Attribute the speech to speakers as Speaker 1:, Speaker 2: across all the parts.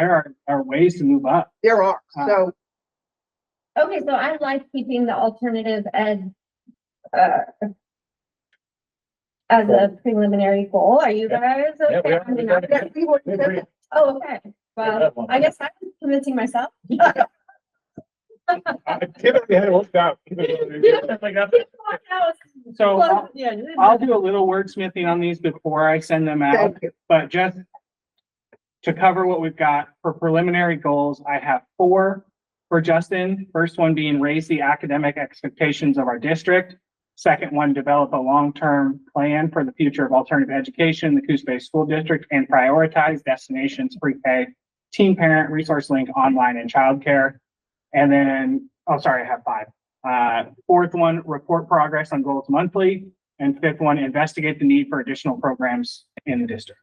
Speaker 1: there are, are ways to move up.
Speaker 2: There are,
Speaker 1: Uh,
Speaker 2: so
Speaker 3: Okay, so I like keeping the alternative as, uh, as a preliminary goal. Are you guys
Speaker 4: we
Speaker 3: okay?
Speaker 4: are.
Speaker 3: I mean,
Speaker 4: We
Speaker 2: yeah,
Speaker 3: I-
Speaker 4: got
Speaker 2: we were-
Speaker 4: We agree.
Speaker 3: Oh, okay. Well,
Speaker 4: have one.
Speaker 3: I guess I'm convincing myself.
Speaker 4: I Typically, had it worked out. Like that.
Speaker 1: So I'll,
Speaker 3: Yeah.
Speaker 1: I'll do a little wordsmithing on these before I send them out,
Speaker 2: thank you.
Speaker 1: but just to cover what we've got for preliminary goals, I have four for Justin. First one being raise the academic expectations of our district. Second one, develop a long-term plan for the future of alternative education, in the Coos Bay School District, and prioritize destinations pre-K, teen parent, resource link, online, and childcare. And then, oh, sorry, I have five. Uh, fourth one, report progress on goals monthly. And fifth one, investigate the need for additional programs in the district.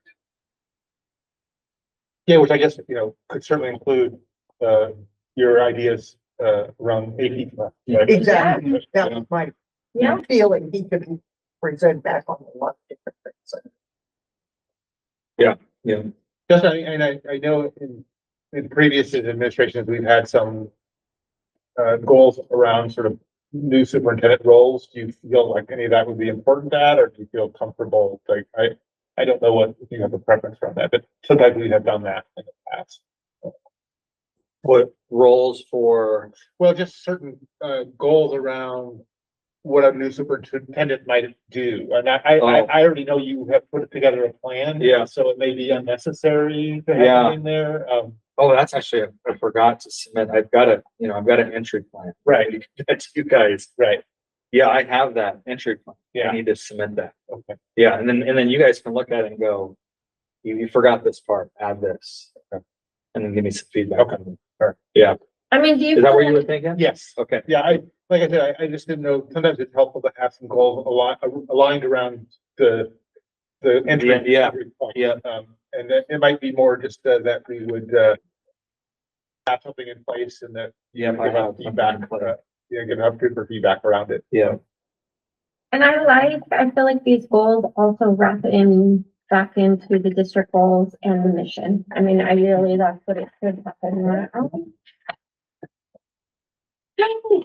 Speaker 4: Yeah, which I guess, you know, could certainly include, uh, your ideas, uh, around AP. class, right?
Speaker 2: Exactly. That was my
Speaker 3: Yeah,
Speaker 2: feeling. He could present back on a lot of different things.
Speaker 4: Yeah. Just, I, and I, I know in, in previous administrations, we've had some uh, goals around sort of new superintendent roles. Do you feel like any of that would be important to add, or do you feel comfortable? Like, I, I don't know what, if you have a preference around that, but sometimes we have done that in the past.
Speaker 5: What roles for,
Speaker 4: Well, just certain, uh, goals around what a new superintendent might do. And I, I, I
Speaker 5: Oh.
Speaker 4: I already know you have put together a plan.
Speaker 5: Yeah.
Speaker 4: So it may be unnecessary to have
Speaker 5: Yeah.
Speaker 4: it in there. Um,
Speaker 5: oh, that's actually, I forgot to submit, I've got a, you know, I've got an entry plan.
Speaker 4: right,
Speaker 5: That's you guys.
Speaker 4: right.
Speaker 5: Yeah, I have that entry plan.
Speaker 4: Yeah.
Speaker 5: I need to submit that.
Speaker 4: Okay.
Speaker 5: Yeah, and then, and then you guys can look at it and go, you, you forgot this part, add this. And then give me some feedback.
Speaker 4: Okay.
Speaker 3: I mean, do you?
Speaker 5: Is that
Speaker 3: feel
Speaker 5: what you were
Speaker 3: like-
Speaker 5: thinking?
Speaker 4: Yes.
Speaker 5: Okay,
Speaker 4: Yeah, I, like I said, I, I just didn't know, sometimes it's helpful to have some goals aligned, aligned around the, the entry.
Speaker 5: yeah,
Speaker 4: entry point.
Speaker 5: yeah.
Speaker 4: Um, and that, it might be more just uh, that we would, uh, have something in place and that
Speaker 5: yeah,
Speaker 4: give
Speaker 5: I have
Speaker 4: out feedback, uh, yeah, give out good for feedback around it.
Speaker 5: Yeah,
Speaker 3: And I like, I feel like these goals also wrap in back into the district goals and the mission. I mean, ideally, that's what it should happen. right?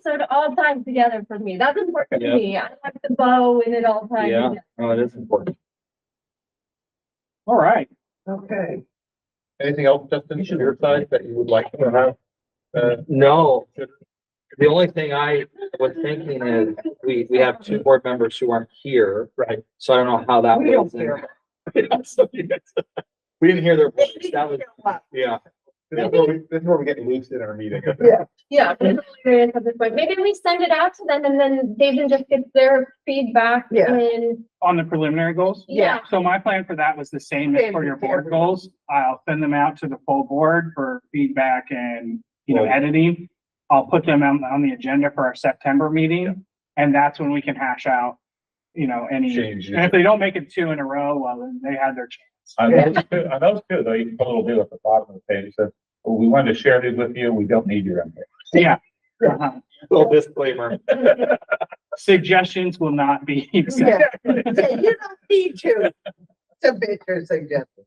Speaker 3: So it all ties together for me. That's important to
Speaker 5: Yeah.
Speaker 3: me. I like the bow and it all ties.
Speaker 5: Yeah.
Speaker 3: together.
Speaker 5: oh, it is important.
Speaker 1: All right.
Speaker 2: Okay,
Speaker 4: Anything else, Justin, from your side that you would like to have? Uh,
Speaker 5: No, the only thing I was thinking is, we, we have two board members who aren't here.
Speaker 4: Right.
Speaker 5: So I don't know how that
Speaker 2: we don't
Speaker 5: was. in-
Speaker 2: care.
Speaker 5: We didn't hear their voice. That was, yeah.
Speaker 4: this is where we, this is where we get loose in our meeting.
Speaker 3: Yeah. I'm curious at this point. Maybe we send it out to them and then they can just get their feedback
Speaker 2: Yeah.
Speaker 3: and,
Speaker 1: On the preliminary goals?
Speaker 3: yeah.
Speaker 1: So my plan for that was the same as for your board goals. I'll send them out to the full board for feedback and, you know,
Speaker 5: Right.
Speaker 1: editing. I'll put them on, on the agenda for our September meeting, and that's when we can hash out, you know, any, and
Speaker 4: Change.
Speaker 1: if they don't make it two in a row, well, then they had their chance.
Speaker 6: On those two, on those two, though, you can put a little deal at the bottom of the page, that "Well, we wanted to share these with you, we don't need your input.
Speaker 1: Yeah. Uh-huh.
Speaker 5: Little disclaimer.
Speaker 1: Suggestions will not be accepted.
Speaker 2: Yeah. Yeah, You don't need to submit your suggestion.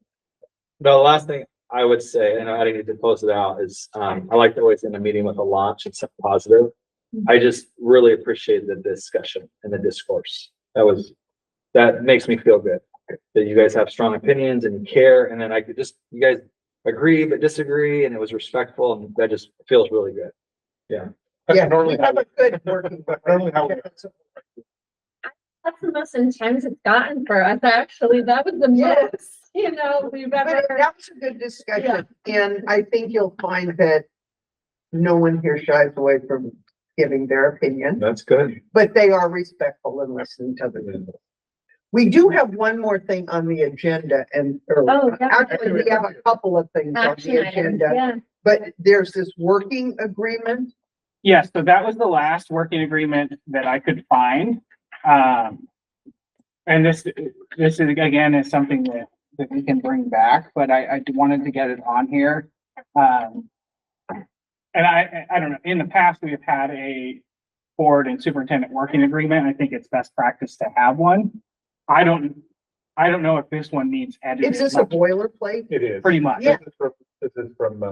Speaker 5: The last thing I would say, and I didn't get to post it out, is, um, I like to always end a meeting with a launch and something positive.
Speaker 2: Mhm.
Speaker 5: I just really appreciated the discussion and the discourse. That was, that makes me feel good. That you guys have strong opinions and you care, and then I could just, you guys agree but disagree, and it was respectful, and that just feels really good.
Speaker 2: Yeah, we
Speaker 4: Normally, how
Speaker 2: have
Speaker 4: we-
Speaker 2: a good working.
Speaker 4: normally how we-
Speaker 3: That's the most intense it's gotten for us, actually. That was the
Speaker 2: Yes.
Speaker 3: most, you know, we've ever.
Speaker 2: But that was a good discussion, and I think you'll find that no one here shies away from giving their opinion,
Speaker 5: That's good.
Speaker 2: but they are respectful and listen to them. We do have one more thing on the agenda and, or
Speaker 3: Oh, yeah.
Speaker 2: actually, we have a couple of things on
Speaker 3: Action
Speaker 2: the
Speaker 3: items,
Speaker 2: agenda.
Speaker 3: yeah.
Speaker 2: But there's this working agreement.
Speaker 1: Yeah, so that was the last working agreement that I could find. Um, and this, this is again is something that, that we can bring back, but I, I wanted to get it on here. Um, and I, I I don't know, in the past, we have had a board and superintendent working agreement. I think it's best practice to have one. I don't, I don't know if this one needs edited.
Speaker 2: Is this a
Speaker 1: much,
Speaker 2: boilerplate?
Speaker 4: It is.
Speaker 1: Pretty much.
Speaker 2: Yeah.
Speaker 4: This is from- This is from, uh,